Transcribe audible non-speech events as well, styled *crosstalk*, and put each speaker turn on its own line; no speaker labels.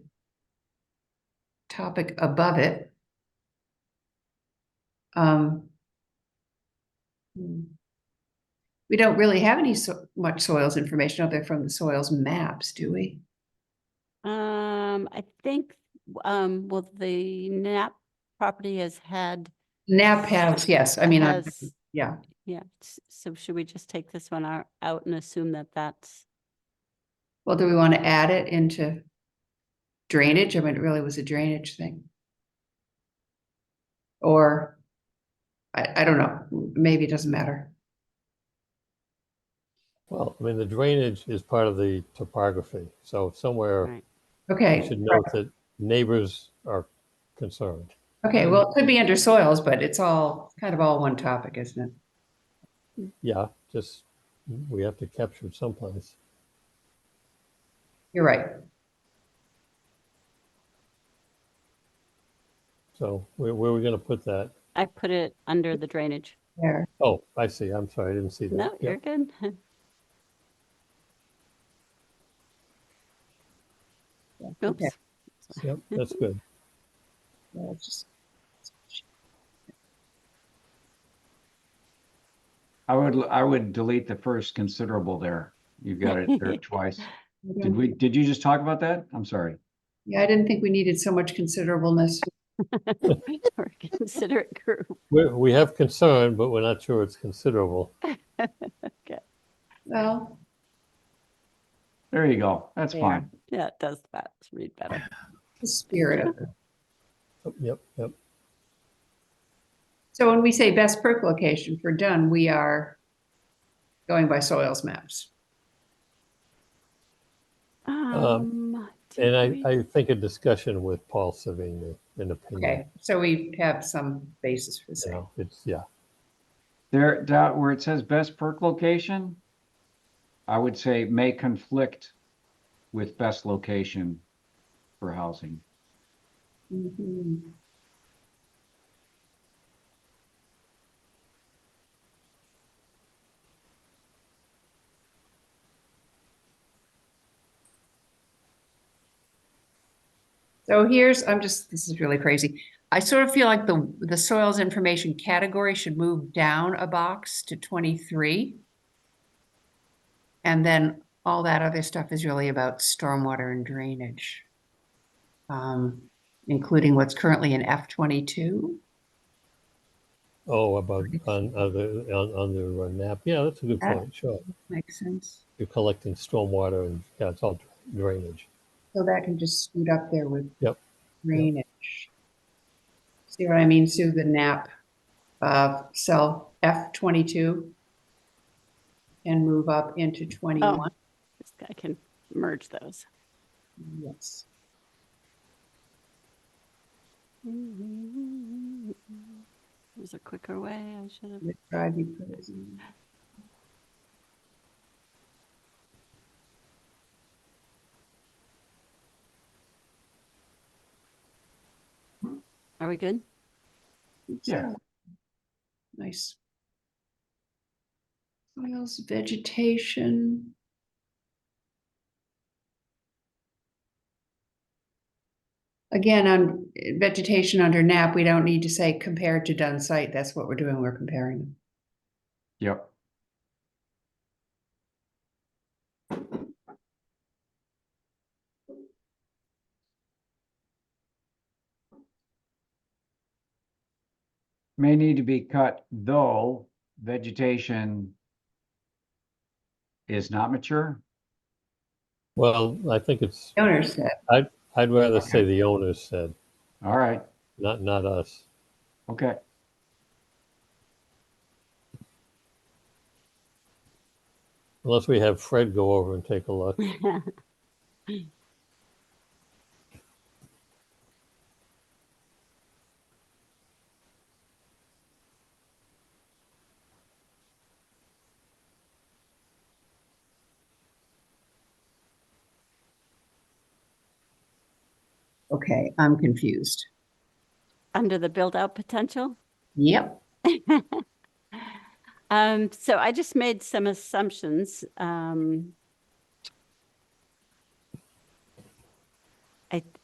topic above it. Um. hmm. We don't really have any so much soils information other from the soils maps, do we?
Um, I think, um, well, the NAP property has had.
NAP has, yes, I mean, I-
has-
yeah,
Yeah, s- so should we just take this one out- out and assume that that's,
well, do we want to add it into drainage? I mean, it really was a drainage thing. Or, I, I don't know, maybe it doesn't matter.
Well, I mean, the drainage is part of the topography, so somewhere
right,
Okay.
you should note that neighbors are concerned.
Okay, well, it could be under soils, but it's all, kind of all one topic, isn't it?
Yeah, just, we have to capture it someplace.
You're right.
So where, where are we gonna put that?
I put it under the drainage.
There.
Oh, I see, I'm sorry, I didn't see that.
No,
Yeah.
you're
*laughs*
good. Oops,
Okay.
Yep, that's good.
Well, it's just-
I would, I would delete the first considerable there. You've got it there twice.
I
Did
don't-
we, did you just talk about that? I'm sorry.
Yeah, I didn't think we needed so much considerableness.
*laughs* Or considerate group.
We, we have concern, but we're not sure it's considerable.
Well,
There you go. That's
There.
fine.
Yeah, it does that, read better.
the spirit of it.
Yep, yep,
So when we say best perk location for Dunn, we are going by soils maps.
Um. did
and
we-
I, I think a discussion with Paul Savigny, an opinion,
Okay, so we have some basis for
you
saying.
know, it's, yeah.
There, that, where it says best perk location, I would say may conflict with best location for housing.
Mhm. So here's, I'm just, this is really crazy. I sort of feel like the, the soils information category should move down a box to 23. And then all that other stuff is really about stormwater and drainage. Um, including what's currently in F twenty-two.
Oh, about, on, on the, on, on the uh, nap, yeah, that's a good
Ah.
Yeah.
point, sure.
Makes sense.
you're collecting stormwater and, yeah, it's all drainage.
So that can just scoot up there with
Yep.
drainage. See what I mean, Sue, the nap, uh, cell F twenty-two and move up into
Oh,
twenty-one.
this guy can merge those.
Yes.
There's a quicker way. I should have.
Would drive you crazy.
Are we good?
Yeah.
Nice. Soils, vegetation. Again, on vegetation under NAP, we don't need to say compared to done site. That's what we're doing. We're comparing them.
Yep. May need to be cut, though vegetation is not mature.
Well, I think it's,
Owner said,
I'd rather say the owners said,
All right,
not, not us.
okay.
Unless we have Fred go over and take a look.
okay, I'm confused.
Under the build out potential?
Yep.
Um, so I just made some assumptions. Um, I,